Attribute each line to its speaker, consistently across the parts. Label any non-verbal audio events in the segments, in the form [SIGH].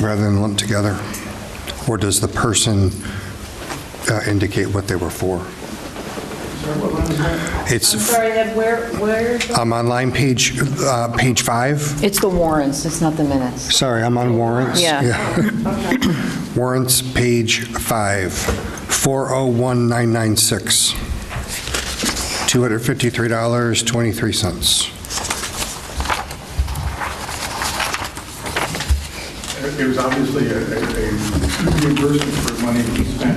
Speaker 1: rather than lumped together? Or does the person uh, indicate what they were for? It's,
Speaker 2: I'm sorry, Ed, where, where?
Speaker 1: I'm on line page, uh, page five.
Speaker 3: It's the warrants, it's not the minutes.
Speaker 1: Sorry, I'm on warrants.
Speaker 3: Yeah.
Speaker 1: [COUGHS] Warrants, page five, 401996, $253.23.
Speaker 4: It was obviously a a- a reimbursement for money that we spent.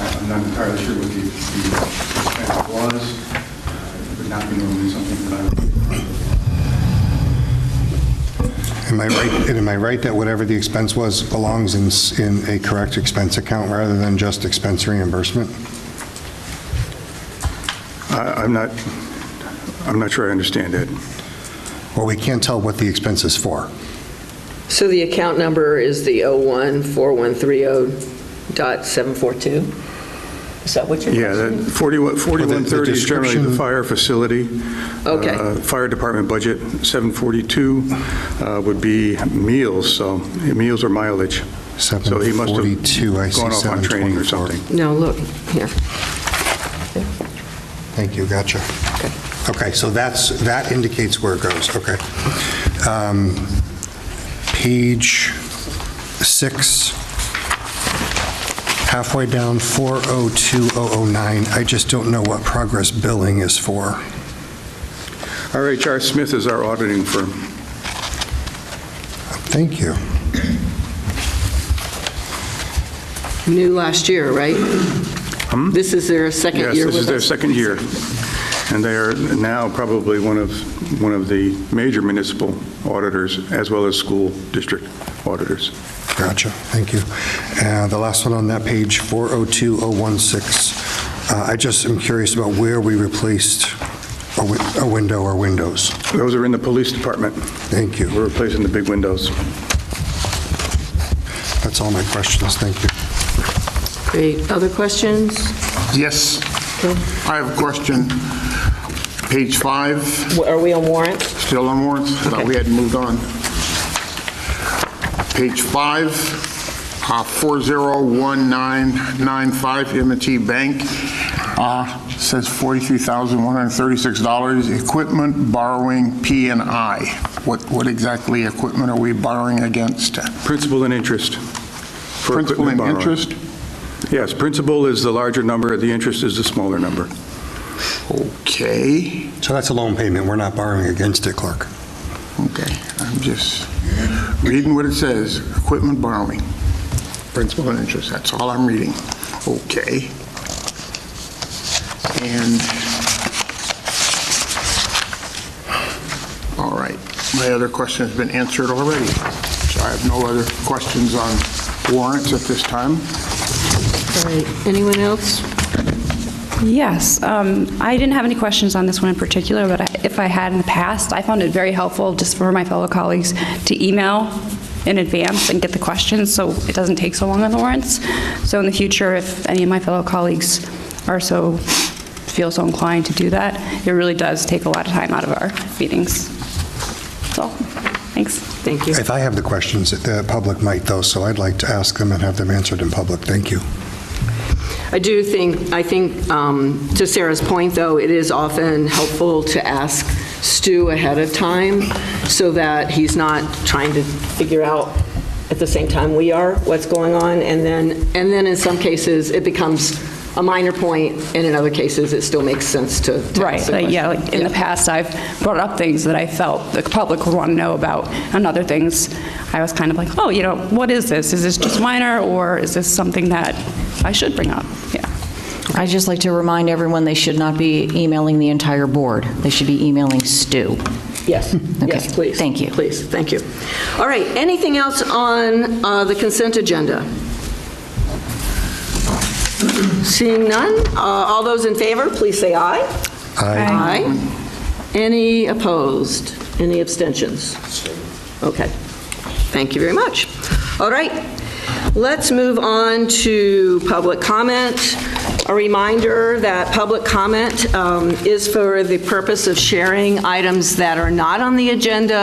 Speaker 4: Um, I'm not entirely sure what the the expense was. uh, It would not be normally something that I would...
Speaker 1: Am I right, and am I right that whatever the expense was belongs in, s- in a correct expense account rather than just expense reimbursement?
Speaker 4: I- I'm not, I'm not sure I understand that.
Speaker 1: Well, we can't tell what the expense is for.
Speaker 5: So the account number is the 014130742? Is that what you're?
Speaker 4: Yeah, that 41
Speaker 1: Well, the- the
Speaker 4: 4130 is generally the
Speaker 1: description-
Speaker 4: fire facility.
Speaker 5: Okay.
Speaker 4: uh, Fire department budget, 742 uh, would be meals, so meals or mileage. So he must have
Speaker 1: 742, I see
Speaker 4: Gone off on training or
Speaker 1: 724.
Speaker 4: something.
Speaker 5: No, look, here.
Speaker 1: Thank you, gotcha.
Speaker 5: Okay.
Speaker 1: Okay, so that's, that indicates where it goes, okay. Um, Page six, halfway down, 402009, I just don't know what progress billing is for.
Speaker 4: RHR Smith is our auditing firm.
Speaker 1: Thank you.
Speaker 5: New last year, right? This is their second
Speaker 4: Hmm? Yes,
Speaker 5: year
Speaker 4: this is
Speaker 5: with
Speaker 4: their
Speaker 5: us?
Speaker 4: second year, and they are now probably one of, one of the major municipal auditors, as well as school district auditors.
Speaker 1: Gotcha, thank you. Uh, The last one on that page, 402016, Uh, I just am curious about where we replaced a wi- a window or windows.
Speaker 4: Those are in the police department.
Speaker 1: Thank you.
Speaker 4: We're replacing the big windows.
Speaker 1: That's all my questions, thank you.
Speaker 5: Great. Other questions?
Speaker 6: Yes. I have a question. Page five,
Speaker 5: W- Are we on warrant?
Speaker 6: still on warrants? No, we hadn't moved on. Page five, uh, 401995, M&T Bank, uh, says $43,136. Equipment borrowing P and I. What what exactly equipment are we borrowing against?
Speaker 4: Principal and interest. for
Speaker 6: Principal
Speaker 4: equipment
Speaker 6: and
Speaker 4: borrowing.
Speaker 6: interest?
Speaker 4: Yes, principal is the larger number, the interest is the smaller number.
Speaker 6: Okay.
Speaker 1: So that's a loan payment, we're not borrowing against it, clerk.
Speaker 6: Okay, I'm just reading what it says, equipment borrowing, principal and interest, that's all I'm reading. Okay. And, all right, my other question has been answered already, so I have no other questions on warrants at this time.
Speaker 5: All right. Anyone else?
Speaker 7: Yes, um, I didn't have any questions on this one in particular, but I- if I had in the past, I found it very helpful just for my fellow colleagues to email in advance and get the questions, so it doesn't take so long on the warrants. So in the future, if any of my fellow colleagues are so, feel so inclined to do that, it really does take a lot of time out of our meetings. So, thanks.
Speaker 5: Thank you.
Speaker 1: If I have the questions, the public might though, so I'd like to ask them and have them answered in public, thank you.
Speaker 5: I do think, I think, um, to Sarah's point, though, it is often helpful to ask Stu ahead of time so that he's not trying to figure out at the same time we are what's going on. And then, and then in some cases, it becomes a minor point, and in other cases, it still makes sense to to
Speaker 7: Right,
Speaker 5: ask the
Speaker 7: like, yeah,
Speaker 5: question.
Speaker 7: like, in the past, I've brought up things that I felt the public would want to know about, and other things, I was kind of like, oh, you know, what is this? Is this just minor, or is this something that I should bring up? Yeah.
Speaker 3: I'd just like to remind everyone, they should not be emailing the entire board. They should be emailing Stu.
Speaker 5: Yes, yes,
Speaker 3: Hmm. Okay,
Speaker 5: please.
Speaker 3: thank you.
Speaker 5: Please, thank you. All right, anything else on uh, the consent agenda? Seeing none, uh, all those in favor, please say aye.
Speaker 7: Aye.
Speaker 5: Aye. Any opposed? Any abstentions? Okay, thank you very much. All right, let's move on to public comment. A reminder that public comment um, is for the purpose of sharing items that are not on the agenda